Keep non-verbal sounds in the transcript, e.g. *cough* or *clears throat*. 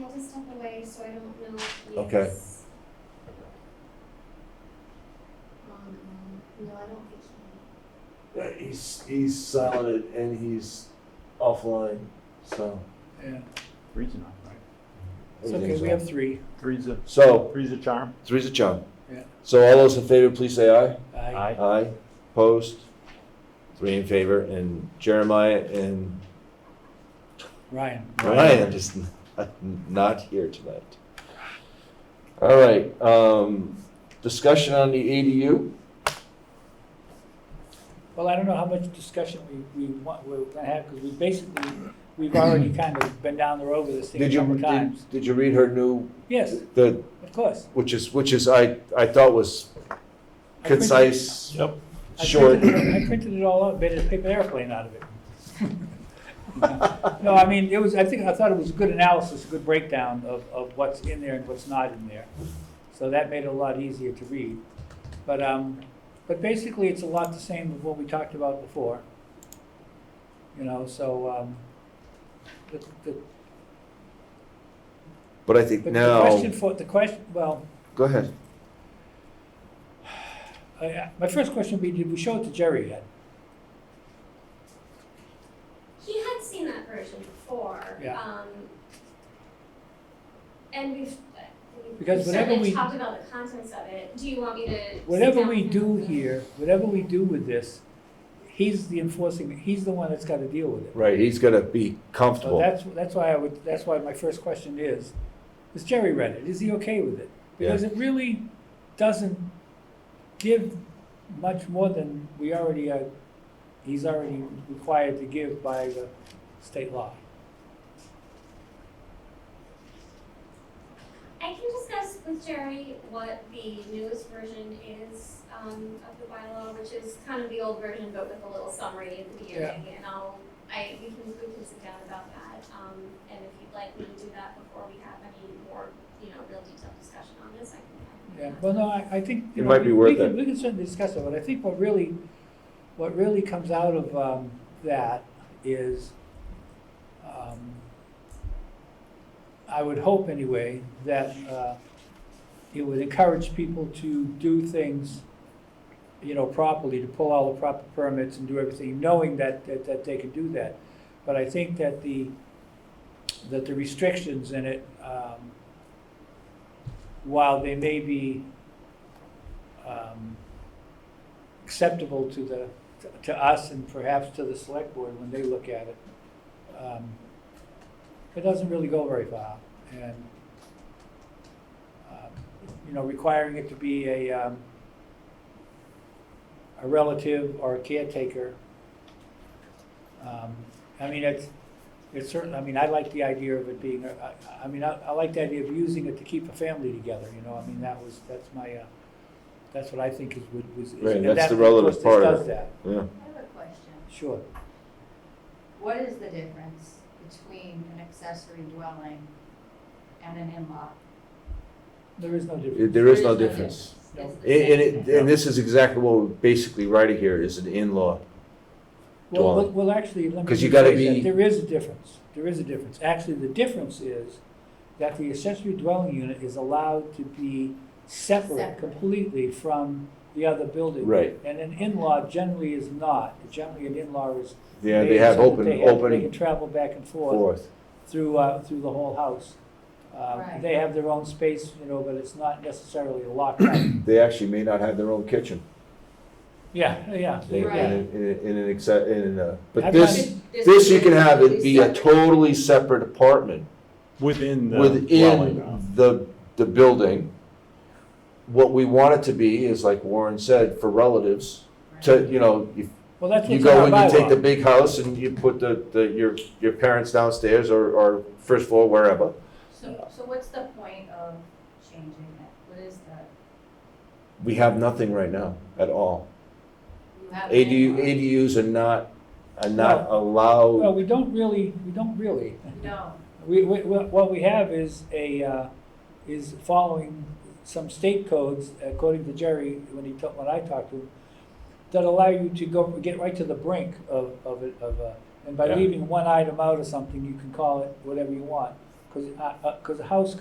had to step away, so I don't know if he's. Okay. Um, no, I don't think he, Yeah, he's he's silent and he's offline, so Yeah, Three's enough, right? it's okay, everything's we on. have three. Three's a, So three's a charm. three's a charm. Yeah. So all those in favor, please say aye. I Aye. Aye. Opposed. Three in favor, and Jeremiah and Ryan, Ryan is *laughs* n- not here tonight. All right. Um, discussion on the ADU. well, I don't know how much discussion we, we want, we're gonna have, because we basically, *clears throat* we've already kind of been down the road with this thing a Did you couple of times. did, did you read her new Yes, the of course. which is which is I I thought was I printed- concise, Yep. I short. printed it- I printed it all out, made a paper airplane out of it. No, I mean, it was, I think, I thought it was a good analysis, a good breakdown of, of what's in there and what's not in there. So that made it a lot easier to read. But, um, but basically, it's a lot the same of what we talked about before. You know, so, um, the, the, But I think but the now question for, the question, well, go ahead. I- I, my first question would be, did we show it to Jerry yet? he had seen that version before, Yeah. um. And we've, uh, we've Because whatever certainly we- talked about the contents of it, do you want me to? sit Whatever down we and- do here, whatever we do with this, he's the enforcing, he's the one that's gotta deal with it. Right, he's gonna be So comfortable. that's, that's why I would, that's why my first question is, is Jerry read it? Is he okay with it? Because it really doesn't give much more than we already, uh, he's already required to give by the state law. I can discuss with Jerry what the newest version is, um, of the bylaw, which is kind of the old version, but with a little summary at the beginning, and I'll, I, we can, we can sit down about that, um, and if you'd like me to do that before we have any more, you know, real detailed discussion on this, I can. Yeah, well, no, I, I think, you It know, might be we, worth we can, it. we can certainly discuss it, but I think what really, what really comes out of, um, that is, um, I would hope anyway, that, uh, it would encourage people to do things, you know, properly, to pull all the proper permits and do everything, knowing that, that, that they can do that. But I think that the, that the restrictions in it, um, while they may be um, acceptable to the, to us and perhaps to the select board when they look at it, um, it doesn't really go very far. And, um, you know, requiring it to be a, um, a relative or a caretaker. um, I mean, it's, it's certain, I mean, I like the idea of it being, I, I mean, I, I like the idea of using it to keep a family together, you know, I mean, that was, that's my, uh, that's what I think is, would, was. is- Right, and that's that- the of relative course, this part of does it. that, Yeah. I have a question. Sure. What is the difference between an accessory dwelling and an in-law? There is no difference. There is no difference. It's the And, and same it, thing. and this is exactly what we're basically writing here, is an in-law. Well, well, dwelling. well, actually, let me. 'Cause you gotta rephrase that. be- There is a difference, there is a difference. Actually, the difference is that the accessory dwelling unit is allowed to be separate Separate. completely from the other building. Right. And an in-law generally is not. Generally, an in-law is. Yeah, they have so that open, they have- They can open travel back and forth forth. through, uh, through the whole house. Um, Right. They have their own space, you know, but it's not necessarily a lockout. They actually may not have their own kitchen Yeah, yeah. in, in, Right. an- in, an- in an exa- in, a- but I've this, got- this you can have it is be a separate. totally separate apartment Within the dwelling. uh, within the, the building. What we want it to be is like Warren said, for relatives, to, you know, if Well, that's You what's in go our and you take the bylaw. big house and you put the, the, your, your parents downstairs or, or first floor, wherever. So, so what's the point of changing it? What is the, We have nothing right now at all. you have. an ADU, in-law. ADUs are not, are not allowed. Well, we don't really, we don't really. No, We, we, we- what we have is a, uh, is following some state codes, according to Jerry, when he, ta- when I talked to him, that allow you to go, get right to the brink of, of, it- of, uh, and by Yeah. leaving one item out or something, you can call it whatever you want. Because, uh, uh 'cause a house